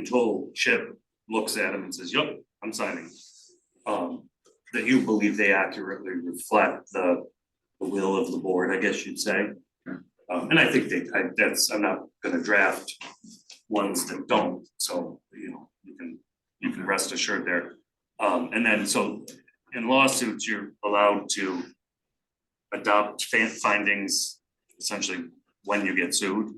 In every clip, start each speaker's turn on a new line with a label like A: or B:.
A: until Chip looks at him and says, yep, I'm signing. Um, that you believe they accurately reflect the, the will of the board, I guess you'd say. Um, and I think they, I, that's, I'm not gonna draft ones that don't, so, you know, you can, you can rest assured there. Um, and then, so in lawsuits, you're allowed to adopt fan findings essentially when you get sued.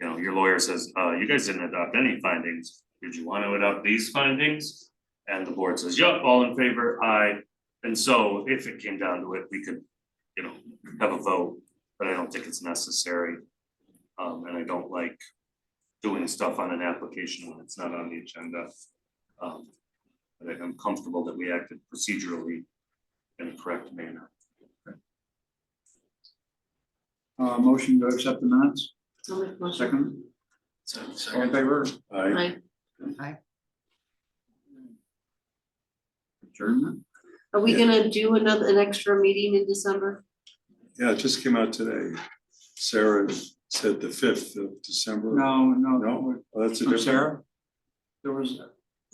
A: You know, your lawyer says, uh, you guys didn't adopt any findings, did you wanna adopt these findings? And the board says, yep, all in favor, aye, and so if it came down to it, we could, you know, have a vote, but I don't think it's necessary. Um, and I don't like doing stuff on an application when it's not on the agenda. Um, but I'm comfortable that we acted procedurally in a correct manner.
B: Uh, motion to accept the minutes,
C: I'll make a motion.
B: second,
D: So,
B: all in
D: second,
B: favor?
E: Uh,
C: Aye.
B: Adjournment,
C: Are we gonna do another, an extra meeting in December?
E: Yeah, it just came out today. Sarah said the fifth of December.
B: no, no,
E: No,
B: no,
E: Oh, that's a
B: from
E: different.
B: Sarah? There was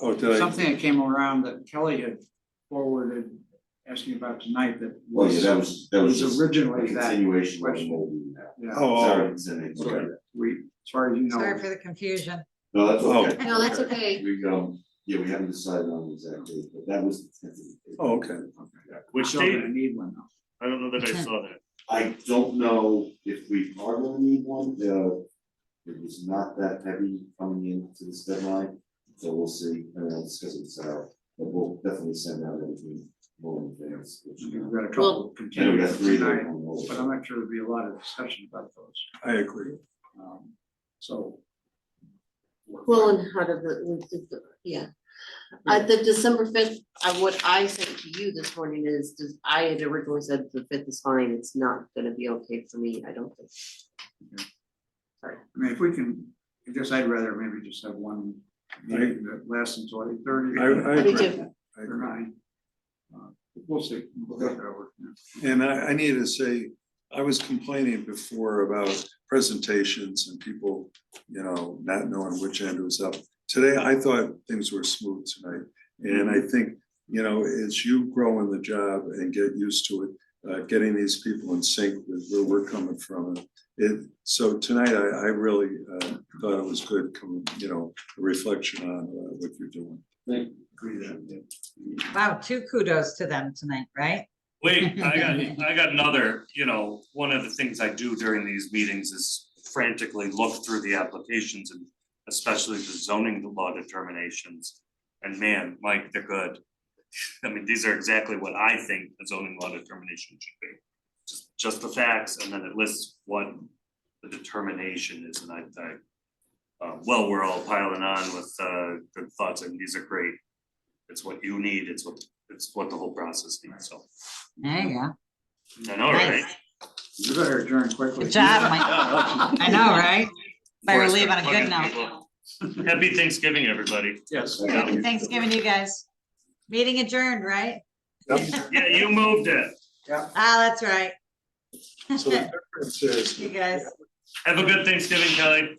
E: Oh, did I?
B: something that came around that Kelly had forwarded, asking about tonight that
F: Well, yeah,
B: was,
F: that was, that was
B: was
F: just a
B: originally that,
F: continuation of the
B: question.
F: whole meeting now.
B: yeah,
E: Oh,
F: Sorry, it's an-
E: Okay.
B: we, as far as you
G: Sorry
B: know.
G: for the confusion.
F: No, that's
E: Oh.
F: okay.
C: No, that's okay.
F: We, um, yeah, we haven't decided on exactly, but that was.
E: Oh, okay.
F: Yeah.
A: Which
B: Still gonna
A: date?
B: Need one though.
A: I don't know that I saw that.
F: I don't know if we are gonna need one, uh, it was not that heavy coming into this deadline, so we'll see, and I'll discuss it with Sarah, but we'll definitely send out everything more in advance. which,
B: We've
F: uh,
B: got a couple
F: I know we got
B: continued
F: three that are
B: tonight,
F: on hold.
B: but I'm not sure there'll be a lot of discussion about those,
E: I agree.
B: um, so.
C: Well, and how did the, we did the- yeah. At the December fifth, uh, what I sent to you this morning is, is I had originally said the fifth is fine, it's not gonna be okay for me, I don't think.
B: I mean, if we can, I guess I'd rather maybe just have one meeting that lasts until eight thirty.
E: I, I
C: Me
E: agree.
C: too.
E: I
B: Or
E: agree.
B: nine. Uh, We'll see. We'll get that over.
E: And I, I need to say, I was complaining before about presentations and people, you know, not knowing which end was up. Today, I thought things were smooth tonight, and I think, you know, as you grow in the job and get used to it, uh, getting these people in sync with where we're coming from. It, so tonight, I, I really, uh, thought it was good coming, you know, a reflection on uh, what you're doing.
B: Agree that.
G: Wow, two kudos to them tonight, right?
A: Wait, I got, I got another, you know, one of the things I do during these meetings is frantically look through the applications and especially the zoning law determinations. And man, Mike, they're good. I mean, these are exactly what I think a zoning law determination should be. Just, just the facts, and then it lists what the determination is, and I, I. Uh, well, we're all piling on with, uh, good thoughts, and these are great. It's what you need, it's what, it's what the whole process needs, so.
G: There you go.
A: I know, right?
G: Nice.
B: You better adjourn quickly.
G: Good job, Mike. I know, right? Better
A: Forrest
G: leave on a
A: Gump
G: good
A: fucking
G: note.
A: people. Happy Thanksgiving, everybody.
B: Yes.
G: Happy Thanksgiving to you guys. Meeting adjourned, right?
A: Yeah, you moved it.
G: Ah, that's right.
E: So the difference is.
G: You guys.
A: Have a good Thanksgiving, Kelly.